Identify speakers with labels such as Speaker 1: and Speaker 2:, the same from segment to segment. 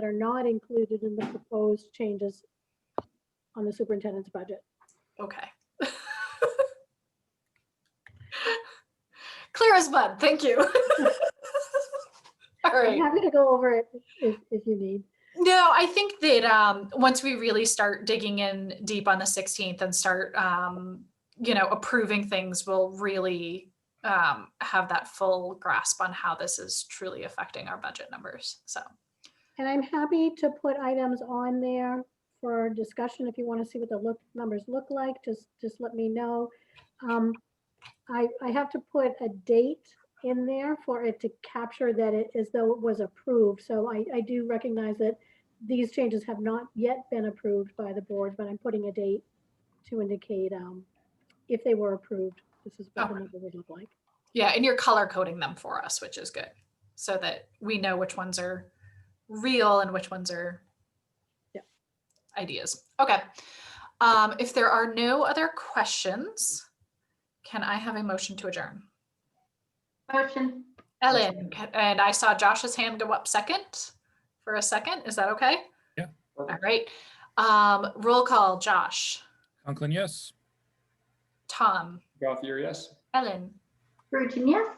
Speaker 1: that are not included in the proposed changes on the superintendent's budget.
Speaker 2: Okay. Clear as mud, thank you. All
Speaker 1: I'm
Speaker 2: right.
Speaker 1: happy to go over it if, if you need.
Speaker 2: No, I think that um, once we really start digging in deep on the 16th and start, um, you know, approving things, we'll really um, have that full grasp on how this is truly affecting our budget numbers. So,
Speaker 1: And I'm happy to put items on there for discussion. If you want to see what the look, numbers look like, just, just let me know. Um, I, I have to put a date in there for it to capture that it, as though it was approved. So I, I do recognize that these changes have not yet been approved by the board, but I'm putting a date to indicate, um, if they were approved, this is what the
Speaker 2: Okay.
Speaker 1: number would look like.
Speaker 2: yeah, and you're color coding them for us, which is good, so that we know which ones are real and which ones are
Speaker 1: Yep.
Speaker 2: ideas. Okay. Um, if there are no other questions, can I have a motion to adjourn?
Speaker 3: Motion.
Speaker 2: Ellen, c- and I saw Josh's hand go up second for a second. Is that okay?
Speaker 4: Yeah.
Speaker 2: All right. Um, roll call, Josh,
Speaker 4: Conklin, yes.
Speaker 2: Tom,
Speaker 5: Gothier, yes.
Speaker 2: Ellen,
Speaker 3: Virgin, yes.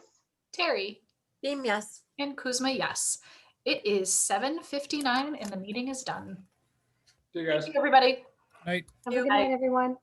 Speaker 2: Terry,
Speaker 6: Beam, yes.
Speaker 2: and Kuzma, yes. It is seven fifty-nine and the meeting is done.
Speaker 5: See you guys.
Speaker 2: Thank you, everybody.
Speaker 4: Night.
Speaker 1: Have a good
Speaker 2: Bye.
Speaker 1: night, everyone.